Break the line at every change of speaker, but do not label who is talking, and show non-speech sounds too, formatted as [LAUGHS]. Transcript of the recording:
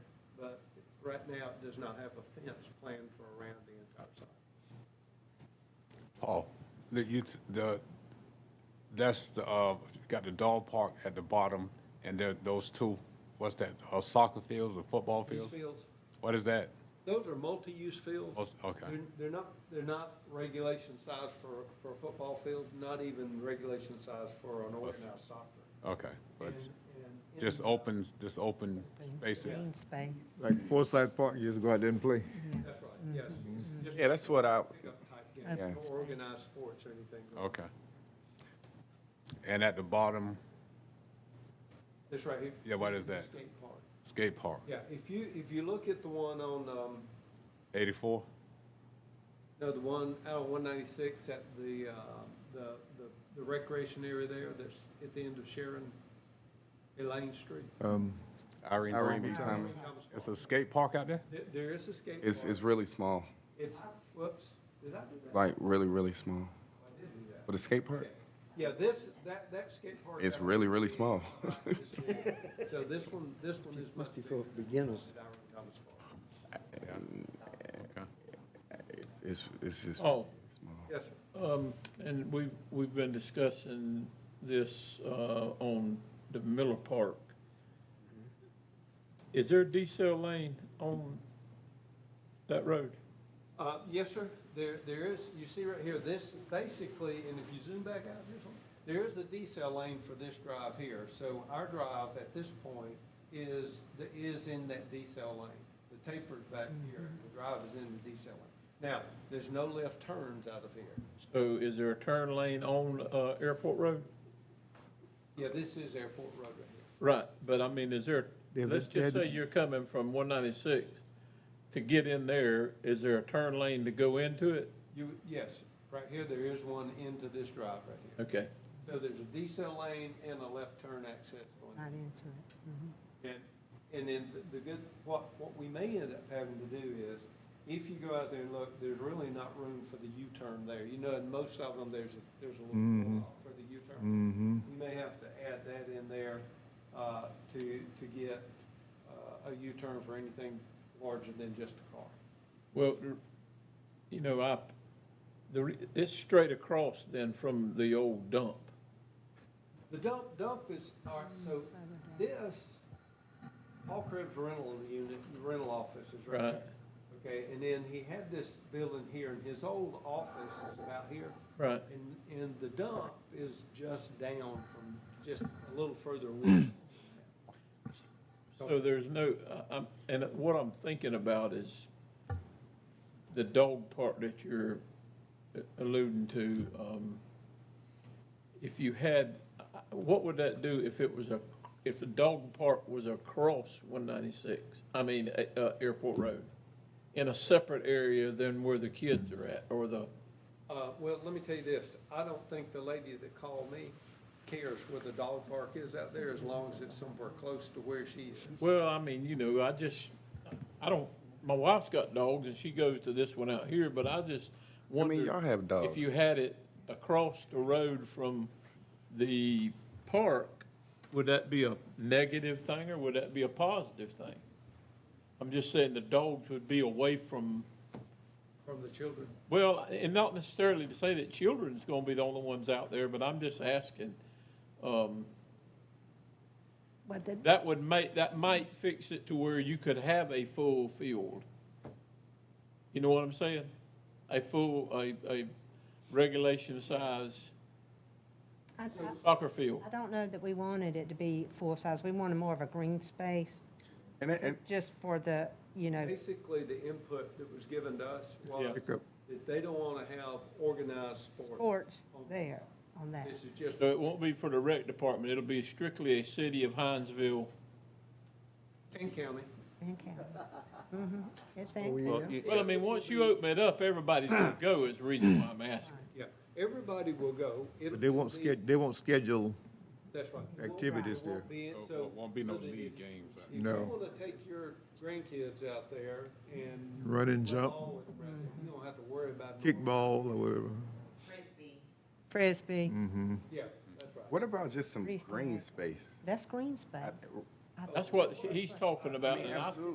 Right now, it does not have a fence planned for around the entire site.
Paul, Oh, the, you, the, that's the, uh, got the dog park at the bottom, and there, those two, what's that, uh, soccer fields or football
These
fields?
fields,
What is that?
those are multi-use fields.
Oh, okay.
They're- They're not, they're not regulation size for, for a football field, not even regulation size for an organized soccer.
Okay, but
And- and in
just
the-
opens, just open spaces.
Green space.
Like Forsyth Park, you just go out there and play.
That's right, yes. Just
Yeah, that's what I,
pickup type game,
Yeah.
no organized sports or anything.
Okay. And at the bottom,
This right here.
Yeah, what is
the
that?
Skate park.
skate park,
Yeah, if you, if you look at the one on, um,
eighty-four?
No, the one out of one ninety-six at the, uh, the, the- the recreation area there that's at the end of Sharon, Elaine Street.
Um,
Irene
Irene B.
Dreamby Thomas.
It's a skate park out there?
There, there is a skate
It's,
park.
it's really small,
It's, whoops, did I do that?
like really, really small.
I did do that.
But the skate park,
Okay. Yeah, this, that, that skate park.
it's
out
really, really small.
there is
[LAUGHS]
big. So this one, this one is much
Must be
bigger.
for beginners.
than Irene Thomas Park.
Okay.
It's- It's, it's just
Oh,
small.
Yes, sir.
um, and we, we've been discussing this, uh, on the Miller Park. Is there a decel lane on that road?
Uh, yes, sir, there, there is, you see right here, this basically, and if you zoom back out here, some- there is a decel lane for this drive here, so our drive at this point is, is in that decel lane. The taper's back here, the drive is in the decel lane. Now, there's no left turns out of here.
So is there a turn lane on, uh, Airport Road?
Yeah, this is Airport Road right here.
Right, but I mean, is there,
Yeah, but
let's just
that-
say you're coming from one ninety-six. To get in there, is there a turn lane to go into it?
You, yes, right here, there is one into this drive right here.
Okay,
So there's a decel lane and a left turn access going
Not into it. Mhm.
And, and then the- the good, what, what we may end up having to do is, if you go out there and look, there's really not room for the U-turn there. You know, in most of them, there's, a- there's a little pull-off for the U-turn.
mm-hmm.
We may have to add that in there, uh, to, to get, uh, a U-turn for anything larger than just a car.
well, you know, I, the, re- it's straight across then from the old dump.
The dump, dump is, all right, so this, Paul Krebs rental unit, rental office is right
Right.
there. Okay, and then he had this building here, and his old office is about here.
Right.
And, and the dump is just down from, just a little further away.
[CLEARS THROAT]
So there's no, I- I'm, and what I'm thinking about is the dog part that you're alluding to. um, If you had, what would that do if it was a, if the dog park was across one ninety-six? I mean, uh, uh, Airport Road, in a separate area than where the kids are at, or the,
Uh, well, let me tell you this, I don't think the lady that called me cares where the dog park is out there, as long as it's somewhere close to where she is.
well, I mean, you know, I just, I don't, my wife's got dogs and she goes to this one out here, but I just
I
wonder.
mean, y'all have dogs.
if you had it across the road from the park, would that be a negative thing or would that be a positive thing? I'm just saying the dogs would be away from,
From the children.
well, and not necessarily to say that children's gonna be the only ones out there, but I'm just asking. Um,
But the,
that would make, that might fix it to where you could have a full field. You know what I'm saying? A full, a, a regulation size
I, I-
soccer field.
I don't know that we wanted it to be full size. We wanted more of a green space,
And, and,
just for the, you know,
Basically, the input that was given to us was
Yeah.
Pick up.
that they don't wanna have organized sports.
sports there on that.
This is just,
So it won't be for the rec department, it'll be strictly a city of Hinesville.
King County,
in Canton. Mhm. It's that.
Oh, yeah.
Well, I mean, once you open it up, everybody's gonna go is the reason why I'm asking.
yeah, everybody will go. It'll
But they won't
be-
sched, they won't schedule,
That's right.
activities
It won't
there.
be it,
So
so-
there won't be no
so that if-
league games, right?
If you
No.
wanna take your grandkids out there and.
Run and jump.
all with them, You don't have to worry about.
kickball or whatever.
Frisbee,
Yeah, that's right.
what about just some
Freestyle.
green space?
that's green space. I
That's what he's talking about, and I